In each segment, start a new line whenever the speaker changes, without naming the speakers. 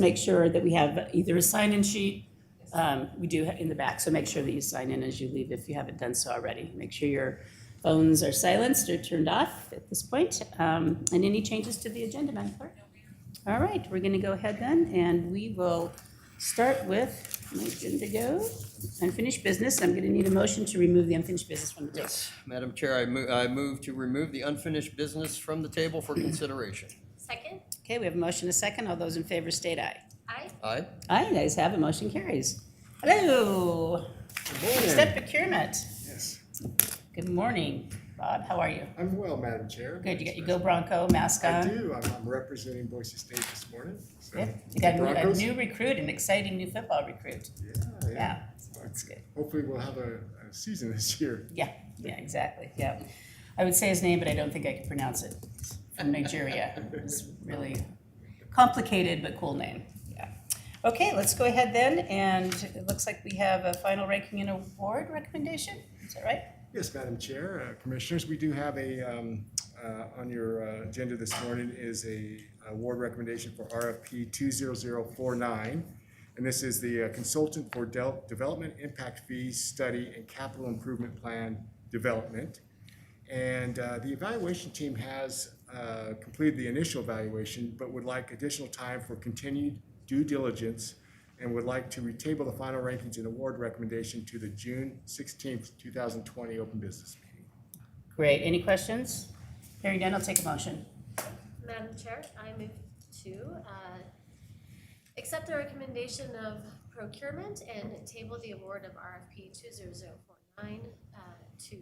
make sure that we have either a sign-in sheet, um, we do ha- in the back, so make sure that you sign in as you leave if you haven't done so already. Make sure your phones are silenced or turned off at this point. Um, And any changes to the agenda, Madam Clerk? All right, we're going to go ahead then, and we will start with, my agenda go, unfinished business. I'm going to need a motion to remove the unfinished business from the table.
Yes, Madam Chair, I move, I move to remove the unfinished business from the table for consideration.
Second,
Okay, we have a motion, a second. All those in favor state aye.
aye.
Aye?
Aye, the ayes have it, motion carries. Hello, step procurement.
Yes,
Good morning, Bob, how are you?
I'm well, Madam Chair.
Good, you got your Go Bronco mask
I
on?
do, I'm, I'm representing Boise State this morning, so.
Yeah, You got a new- a
Broncos?
new recruit, an exciting new football recruit.
Yeah,
Yeah,
yeah.
that's good.
Hopefully we'll have a, a season this year.
Yeah, yeah, exactly, yeah. I would say his name, but I don't think I can pronounce it. From Nigeria. It's really complicated but cool name, yeah. Okay, let's go ahead then, and it looks like we have a final ranking and award recommendation, is that right?
Yes, Madam Chair, uh, Commissioners, we do have a, um, uh, on your uh, agenda this morning is a award recommendation for RFP 20049. And this is the uh, consultant for Del- Development Impact Fee Study and Capital Improvement Plan Development. And uh, the evaluation team has uh, completed the initial evaluation, but would like additional time for continued due diligence and would like to retable the final rankings and award recommendation to the June sixteenth, two thousand twenty open business meeting.
Great, any questions? Hearing none, I'll take a motion.
Madam Chair, I move to uh, accept the recommendation of procurement and table the award of RFP 20049 uh, to,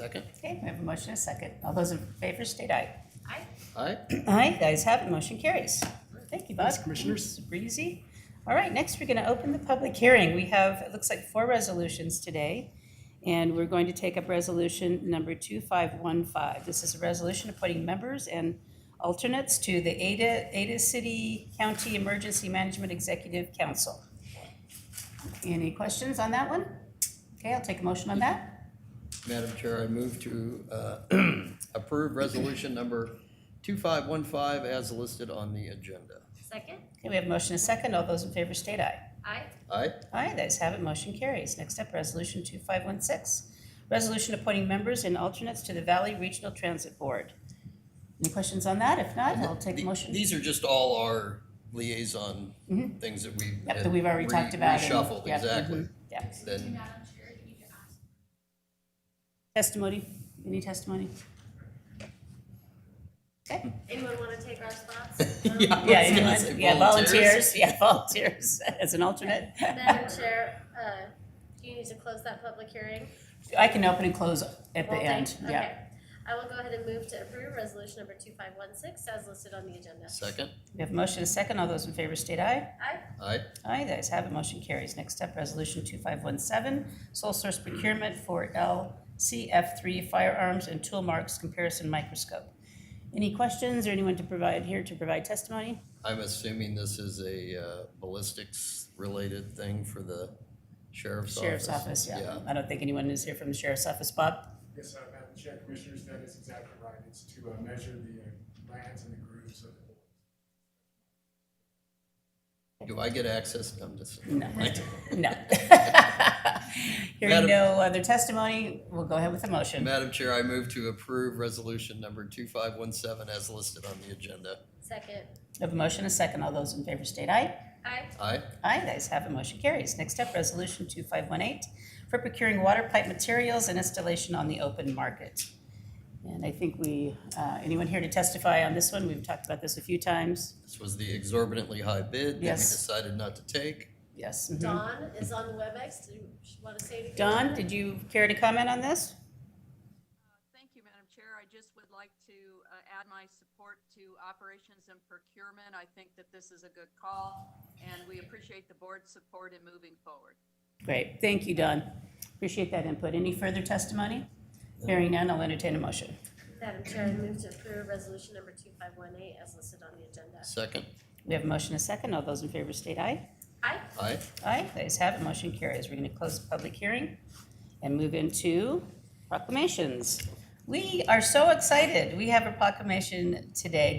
Second?
Okay, we have a motion and a second. All those in favor state aye.
aye.
Aye?
Aye, guys have it, motion carries. Thank you, Bob.
Thanks, Commissioners.
This is breezy. All right, next we're going to open the public hearing. We have, it looks like four resolutions today, and we're going to take up resolution number 2515. This is a resolution appointing members and alternates to the Ada, Ada City County Emergency Management Executive Council. Any questions on that one? Okay, I'll take a motion on that.
Madam Chair, I move to uh, approve resolution number 2515 as listed on the agenda.
Second,
Okay, we have a motion and a second. All those in favor state aye.
aye.
Aye?
Aye, the ayes have it, motion carries. Next up, Resolution 2516. Resolution appointing members and alternates to the Valley Regional Transit Board. Any questions on that? If not, I'll take a
The-
motion.
These are just all our liaison things that we.
Yep, that we've already
re-
talked about and-
Reshuffled,
yep,
exactly.
mhm, yeah.
Then,
Testimony, any testimony? Okay.
Anyone want to take our spots? Um,
Yeah.
Yeah,
I was gonna
anyone-
say
yeah,
volunteers.
volunteers, yeah, volunteers as an alternate.
Madam Chair, uh, do you need to close that public hearing?
I can open and close at the
Won't they?
end, yeah.
Okay. I will go ahead and move to approve resolution number 2516 as listed on the agenda.
second?
We have a motion and a second. All those in favor state aye.
Aye.
Aye?
Aye, the ayes have it, motion carries. Next up, Resolution 2517, sole source procurement for LCF3 firearms and tool marks comparison microscope. Any questions or anyone to provide, here to provide testimony?
I'm assuming this is a ballistics-related thing for the sheriff's office?
Sheriff's Office, yeah. I don't think anyone is here from the Sheriff's Office. Bob?
Yes, uh, Madam Chair, Commissioners, that is exactly right. It's to uh, measure the uh, lands and the grooves of the
Do I get access? I'm just.
No. No. Hearing
Madam-
no other testimony, we'll go ahead with the motion.
Madam Chair, I move to approve resolution number 2517 as listed on the agenda.
Second,
We Have a motion, a second. All those in favor state aye.
aye.
Aye?
Aye, the ayes have it, motion carries. Next up, Resolution 2518, for procuring water pipe materials and installation on the open market. And I think we, uh, anyone here to testify on this one? We've talked about this a few times.
This was the exorbitantly high bid that we
Yes.
decided not to take.
Yes. mhm.
Dawn is on WebEx. Do you want to say anything?
Don, did you care to comment on this?
Thank you, Madam Chair. I just would like to uh, add my support to operations and procurement. I think that this is a good call, and we appreciate the board's support in moving forward.
Great, thank you, Don. Appreciate that input. Any further testimony? Hearing none, I'll entertain a motion.
Madam Chair, I move to approve resolution number 2518 as listed on the agenda.
Second?
We have a motion and a second. All those in favor state aye.
Aye.
Aye?
Aye, the ayes have it, motion carries. We're going to close the public hearing and move into proclamations. We are so excited. We have a proclamation today